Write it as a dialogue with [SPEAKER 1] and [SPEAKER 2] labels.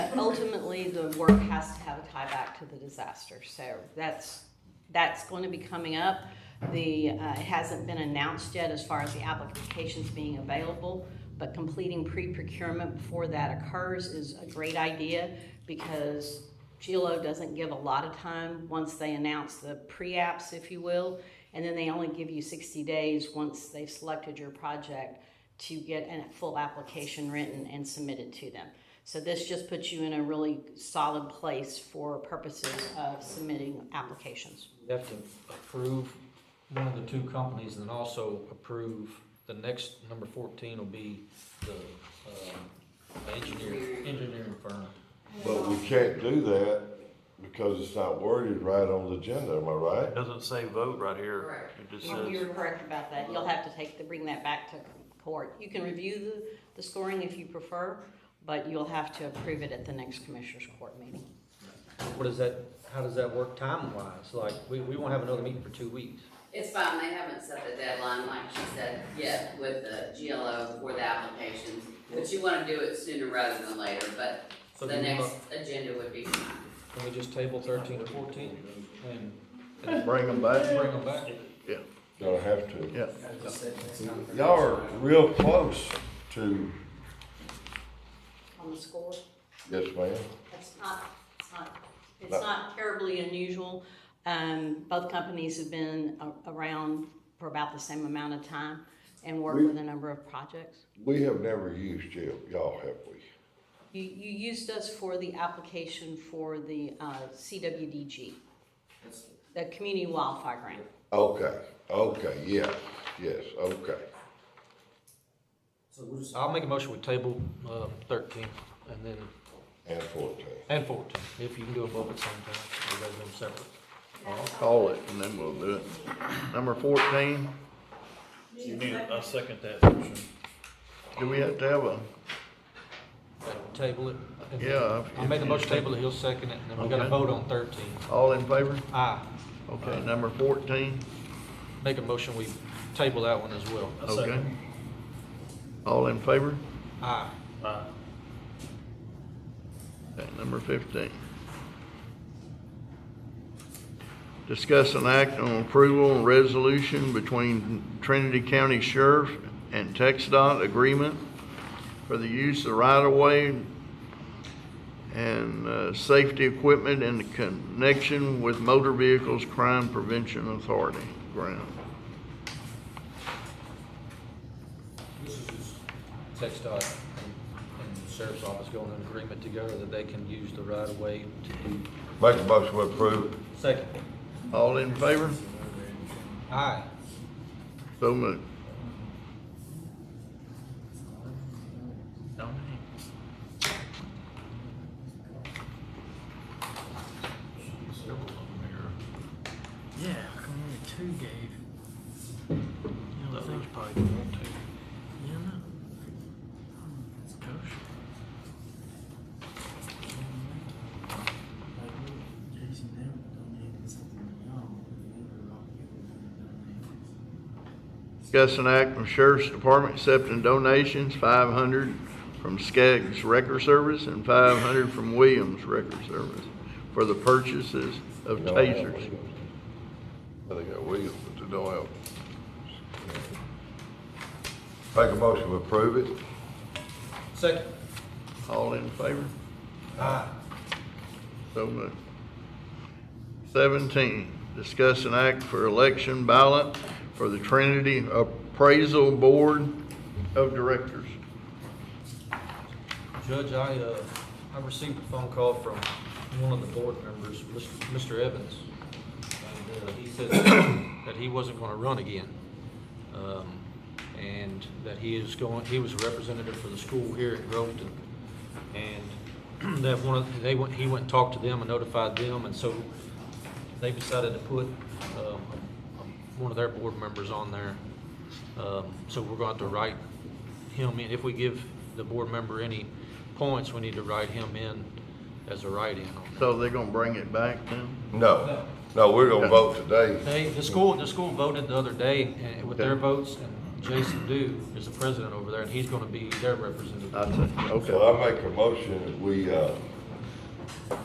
[SPEAKER 1] but ultimately, the work has to have a tie back to the disaster. So that's, that's going to be coming up. The, uh, it hasn't been announced yet as far as the applications being available, but completing pre-procurement before that occurs is a great idea because GLO doesn't give a lot of time once they announce the pre-apps, if you will. And then they only give you sixty days once they've selected your project to get a full application written and submitted to them. So this just puts you in a really solid place for purposes of submitting applications.
[SPEAKER 2] You have to approve one of the two companies and then also approve, the next, number fourteen will be the, uh, engineer, engineering firm.
[SPEAKER 3] But we can't do that because it's not worded right on the agenda, am I right?
[SPEAKER 4] It doesn't say vote right here.
[SPEAKER 5] Correct.
[SPEAKER 4] It just
[SPEAKER 1] Well, you
[SPEAKER 4] says,
[SPEAKER 1] were correct about that. You'll have to take, the bring that back to court. You can review the, the scoring if you prefer, but you'll have to approve it at the next commissioners court meeting.
[SPEAKER 2] What is that, how does that work time-wise? Like, we, we won't have another meeting for two weeks.
[SPEAKER 5] It's fine, they haven't set the deadline, like she said, yet with the GLO for the applications, but you wanna do it sooner rather than later, but
[SPEAKER 2] So
[SPEAKER 5] the
[SPEAKER 2] do you
[SPEAKER 5] next
[SPEAKER 2] want-
[SPEAKER 5] agenda would be fine.
[SPEAKER 2] Can we just table thirteen and fourteen and
[SPEAKER 6] Bring them back?
[SPEAKER 2] bring them back?
[SPEAKER 3] Gonna have to.
[SPEAKER 6] Yeah.
[SPEAKER 3] Y'all are real close to,
[SPEAKER 1] On the score,
[SPEAKER 3] yes, ma'am.
[SPEAKER 1] it's not, it's not, it's not terribly unusual. Um, both companies have been a- around for about the same amount of time and worked
[SPEAKER 3] We-
[SPEAKER 1] with a number of projects.
[SPEAKER 3] We have never used jail, y'all have we?
[SPEAKER 1] You, you used us for the application for the uh, CWDG, the Community Wildfire Grant.
[SPEAKER 3] Okay, okay, yes, yes, okay.
[SPEAKER 2] I'll make a motion, we table, uh, thirteen and then,
[SPEAKER 3] And fourteen.
[SPEAKER 2] and fourteen, if you can do them both at the same time, or rather them separate.
[SPEAKER 6] I'll call it and then we'll do it. Number fourteen,
[SPEAKER 4] you need, I second that motion.
[SPEAKER 6] do we have to have a,
[SPEAKER 2] Table it. and then-
[SPEAKER 6] Yeah, if-
[SPEAKER 2] I made the
[SPEAKER 6] if
[SPEAKER 2] motion
[SPEAKER 6] you-
[SPEAKER 2] table it, he'll second it, and then we gotta
[SPEAKER 6] Okay.
[SPEAKER 2] vote on thirteen.
[SPEAKER 6] all in favor?
[SPEAKER 2] Aye.
[SPEAKER 6] Okay, number fourteen,
[SPEAKER 2] Make a motion, we table that one as well.
[SPEAKER 6] okay. All in favor?
[SPEAKER 2] Aye.
[SPEAKER 4] Aye.
[SPEAKER 6] Okay, number fifteen. Discuss an act on approval and resolution between Trinity County Sheriff and TXDOT agreement for the use of right-of-way and, uh, safety equipment in connection with Motor Vehicles Crime Prevention Authority grant.
[SPEAKER 2] This is just text dot and and sheriff's office going in agreement together that they can use the right of way to do.
[SPEAKER 3] Make a motion to approve.
[SPEAKER 2] Second.
[SPEAKER 6] All in favor?
[SPEAKER 2] Aye.
[SPEAKER 6] So moved.
[SPEAKER 7] Yeah, only two gave. You
[SPEAKER 4] That
[SPEAKER 7] don't
[SPEAKER 4] was
[SPEAKER 7] think,
[SPEAKER 4] probably the one too.
[SPEAKER 7] you know? Hmm, Gosh. Jason never donated something to y'all, but he never all given them
[SPEAKER 6] Discuss an act from Sheriff's Department accepting donations, five hundred from Skaggs Record Service and five hundred from Williams Record Service for the purchases of
[SPEAKER 3] Y'all have
[SPEAKER 6] tasers.
[SPEAKER 3] wheels. Well, They got wheels, but they don't have. Make a motion to approve it.
[SPEAKER 2] Second.
[SPEAKER 6] All in favor?
[SPEAKER 2] Aye.
[SPEAKER 6] So moved. Seventeen, discuss an act for election ballot for the Trinity Appraisal Board of Directors.
[SPEAKER 2] Judge, I, uh, I received a phone call from one of the board members, Mr. Evans. And, uh, he said that he wasn't gonna run again. Um, and that he is going, he was a representative for the school here at Groveton. And that one of, they went, he went and talked to them and notified them, and so they decided to put, um, one of their board members on there. Um, so we're gonna have to write him in, if we give the board member any points, we need to write him in as a write-in on that.
[SPEAKER 6] So they're gonna bring it back then?
[SPEAKER 3] No, no, we're gonna vote today.
[SPEAKER 2] They, the school, the school voted the other day and with their
[SPEAKER 6] Okay.
[SPEAKER 2] votes, and Jason Dew is the president over there, and he's gonna be their representative.
[SPEAKER 6] I see, okay.
[SPEAKER 3] So I make a motion that we, uh,